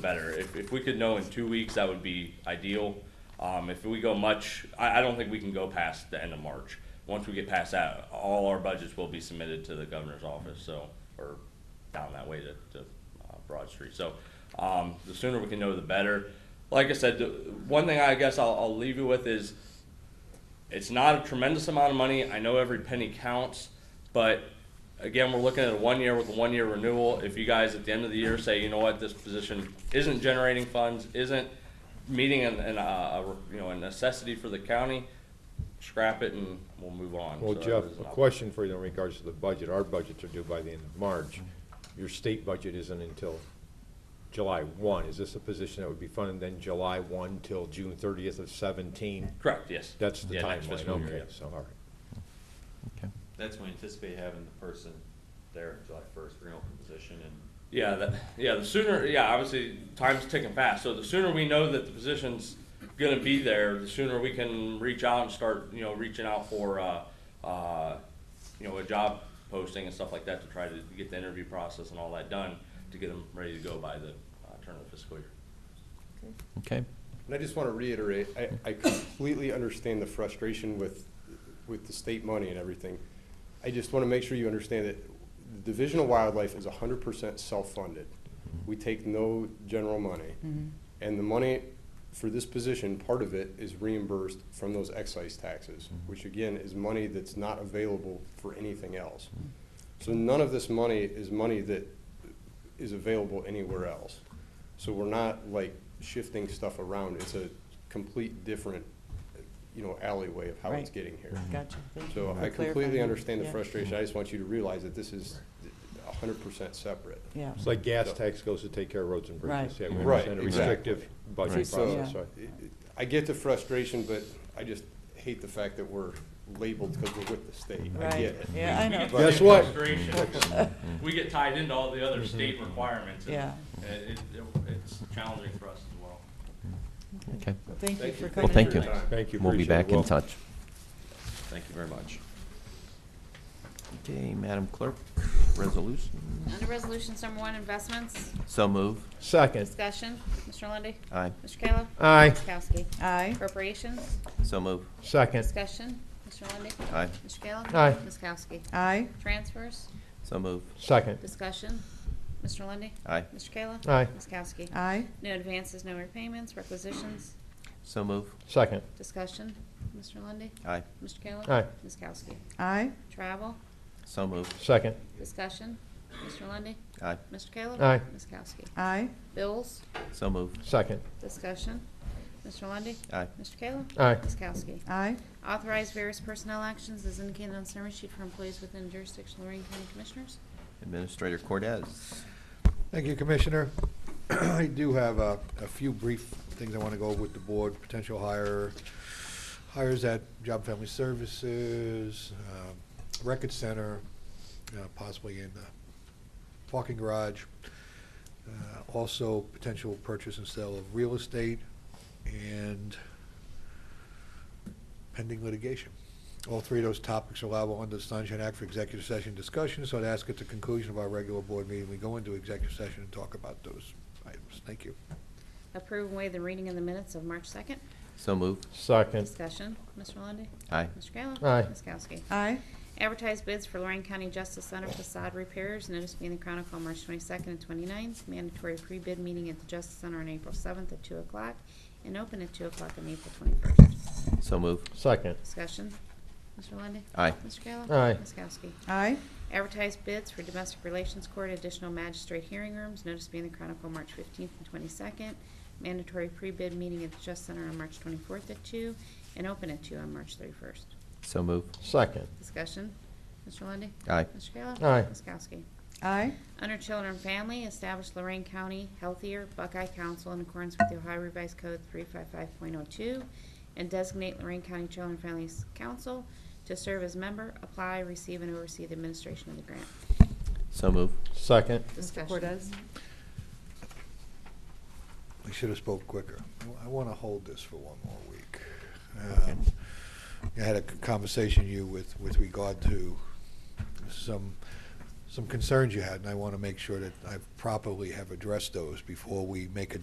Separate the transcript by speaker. Speaker 1: better. If, if we could know in two weeks, that would be ideal. Um, if we go much, I, I don't think we can go past the end of March. Once we get past that, all our budgets will be submitted to the governor's office, so, or down that way to, to uh, Broad Street. So, um, the sooner we can know, the better. Like I said, the one thing I guess I'll, I'll leave you with is, it's not a tremendous amount of money. I know every penny counts, but again, we're looking at a one year with a one year renewal. If you guys at the end of the year say, you know what, this position isn't generating funds, isn't meeting an, an, uh, a- you know, a necessity for the county, scrap it and we'll move on.
Speaker 2: Well,
Speaker 1: So that
Speaker 2: Jeff,
Speaker 1: is
Speaker 2: a
Speaker 1: an op-
Speaker 2: question for you in regards to the budget. Our budgets are due by the end of March. Your state budget isn't until July one. Is this a position that would be funded then July one till June thirtieth of seventeen?
Speaker 1: Correct, yes.
Speaker 2: That's the
Speaker 1: Yeah, next
Speaker 2: timeline,
Speaker 1: fiscal year,
Speaker 2: okay,
Speaker 1: yeah.
Speaker 2: so, all right.
Speaker 3: That's when we anticipate having the person there in July first, for an open position, and
Speaker 1: Yeah, that, yeah, the sooner, yeah, obviously, time's ticking fast, so the sooner we know that the position's gonna be there, the sooner we can reach out and start, you know, reaching out for, uh, uh, you know, a job posting and stuff like that to try to get the interview process and all that done, to get them ready to go by the, uh, turn of the fiscal year.
Speaker 4: Okay,
Speaker 5: And I just want to reiterate, I, I completely understand the frustration with, with the state money and everything. I just want to make sure you understand that the Division of Wildlife is hundred percent self-funded. We take no general money. And the money for this position, part of it is reimbursed from those excise taxes,
Speaker 6: Mm-hmm.
Speaker 5: which again is money that's not available for anything else. So none of this money is money that is available anywhere else. So we're not like shifting stuff around. It's a complete different, you know, alleyway of how it's
Speaker 6: Right.
Speaker 5: getting here.
Speaker 6: Gotcha. Thank you
Speaker 5: So
Speaker 6: for
Speaker 5: I completely
Speaker 6: clarifying.
Speaker 5: understand the
Speaker 6: Yeah.
Speaker 5: frustration. I just want you to realize that this is hundred percent separate.
Speaker 6: Yeah,
Speaker 2: It's like gas tax goes to take care of roads and bridges.
Speaker 6: Right.
Speaker 2: Yeah, we
Speaker 5: Right,
Speaker 2: understand a
Speaker 5: exactly.
Speaker 2: Restrictive budget
Speaker 5: So-
Speaker 2: process,
Speaker 6: Yeah.
Speaker 2: right?
Speaker 5: I get the frustration, but I just hate the fact that we're labeled because we're with the state. I get
Speaker 6: right,
Speaker 5: it.
Speaker 6: yeah, I know.
Speaker 2: Guess what?
Speaker 1: We get tied into all the other state requirements,
Speaker 6: and Mm-hmm. Yeah.
Speaker 1: it's challenging for us as well.
Speaker 4: okay.
Speaker 6: Thank you for
Speaker 4: Well,
Speaker 6: coming.
Speaker 4: thank
Speaker 6: in.
Speaker 4: you.
Speaker 2: Thank you,
Speaker 4: We'll be
Speaker 2: appreciate it.
Speaker 4: back in
Speaker 2: Welcome.
Speaker 4: touch.
Speaker 3: thank you very much.
Speaker 4: Okay, Madam Clerk, resolution.
Speaker 7: Under Resolutions Number One, Investments,
Speaker 4: So move.
Speaker 2: Second,
Speaker 7: Discussion, Mr. Lundy,
Speaker 4: Aye.
Speaker 7: Mr. Kayla.
Speaker 2: Aye.
Speaker 7: Ms. Kowski.
Speaker 6: Aye,
Speaker 7: Appropriations,
Speaker 4: So move.
Speaker 2: second,
Speaker 7: Discussion, Mr. Lundy,
Speaker 4: Aye.
Speaker 7: Mr. Kayla.
Speaker 2: Aye.
Speaker 7: Ms. Kowski.
Speaker 6: aye,
Speaker 7: Transfers,
Speaker 4: So move.
Speaker 2: second,
Speaker 7: Discussion, Mr. Lundy,
Speaker 4: Aye.
Speaker 7: Mr. Kayla.
Speaker 2: Aye.
Speaker 7: Ms. Kowski.
Speaker 6: aye,
Speaker 7: No advances, no repayments, requisitions,
Speaker 4: So move.
Speaker 2: second,
Speaker 7: Discussion, Mr. Lundy,
Speaker 4: Aye.
Speaker 7: Mr. Kayla.
Speaker 2: Aye.
Speaker 7: Ms. Kowski.
Speaker 6: aye,
Speaker 7: Travel,
Speaker 4: So move.
Speaker 2: second,
Speaker 7: Discussion, Mr. Lundy,
Speaker 4: Aye.
Speaker 7: Mr. Kayla.
Speaker 2: Aye.
Speaker 7: Ms. Kowski.
Speaker 6: aye,
Speaker 7: Bills,
Speaker 4: So move.
Speaker 2: second,
Speaker 7: Discussion, Mr. Lundy,
Speaker 4: Aye.
Speaker 7: Mr. Kayla.
Speaker 2: Aye.
Speaker 7: Ms. Kowski.
Speaker 6: aye,
Speaker 7: Authorize various personnel actions as indicated on summary sheet for employees within jurisdiction of Lorraine County Commissioners.
Speaker 4: Administrator Cordez.
Speaker 8: Thank you, Commissioner. I do have a, a few brief things I want to go over with the board, potential hire, hires at Job and Family Services, um, Record Center, uh, possibly in the parking garage. Uh, Also, potential purchase and sale of real estate and pending litigation. All three of those topics are allowable under the Sunshine Act for executive session discussion, so I'd ask at the conclusion of our regular board meeting, we go into executive session and talk about those items. Thank you.
Speaker 7: Approve and waive the reading in the minutes of March 2nd.
Speaker 4: So move.
Speaker 2: second,
Speaker 7: Discussion, Mr. Lundey.
Speaker 4: Aye.
Speaker 7: Mr. Kayla.
Speaker 2: Aye.
Speaker 7: Ms. Kowski.
Speaker 6: aye,
Speaker 7: Advertise bids for Lorraine County Justice Center facade repairs, notice being the Chronicle on March 22nd and 29th. Mandatory pre-bid meeting at the Justice Center on April 7th at 2 o'clock and open at 2 o'clock on April 21st.
Speaker 4: So move.
Speaker 2: second,
Speaker 7: Discussion, Mr. Lundey.
Speaker 4: Aye.
Speaker 7: Mr. Kayla.
Speaker 2: Aye.
Speaker 7: Ms. Kowski.
Speaker 6: aye,
Speaker 7: Advertise bids for domestic relations court additional magistrate hearing rooms, notice being the Chronicle March 15th and 22nd. Mandatory pre-bid meeting at the Just Center on March 24th at 2 and open at 2 on March 31st.
Speaker 4: So move.
Speaker 2: second,
Speaker 7: Discussion, Mr. Lundy.
Speaker 4: Aye.
Speaker 7: Mr. Kayla?
Speaker 2: Aye.
Speaker 7: Ms. Kowski?
Speaker 6: aye,
Speaker 7: Under Children and Family, establish Lorraine County Healthier Buckeye Council in accordance with the Ohio Revised Code 355.02 and designate Lorraine County Children and Families Council to serve as member, apply, receive, and oversee the administration of the grant.
Speaker 4: So move.
Speaker 2: second,
Speaker 7: Discussion.
Speaker 6: Cortez?
Speaker 8: I should have spoke quicker. I- I want to hold this for one more week.
Speaker 4: Okay.
Speaker 8: Um, I had a conversation you with, with regard to some some concerns you had, and I want to make sure that I properly have addressed those before we make a